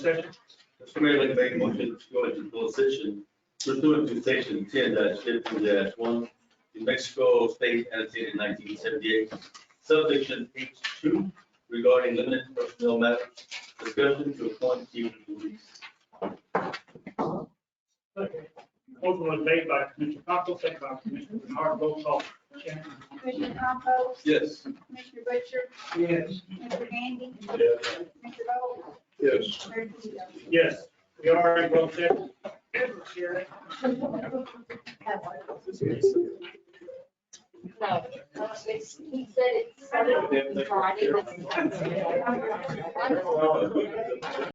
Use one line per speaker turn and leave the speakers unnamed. session.
Mr. Mayor, I'd like to make a motion to go into closed session pursuant to section ten fifteen one, New Mexico State annotated nineteen seventy-eight, subsection H two regarding limited personnel matters, discussion to appoint Stephen Ruiz.
Motion was made by Commissioner Cockle, second by Commissioner Bernard, roll call. Shannon.
Commissioner Compost,
Yes.
Commissioner Butcher,
Yes.
Mr. Gandy,
Yes.
Mr. Bowe,
Yes.
Mayor Tullio.
Yes, we are in closed session. Sherry?
No, it's, he said it's. so I didn't-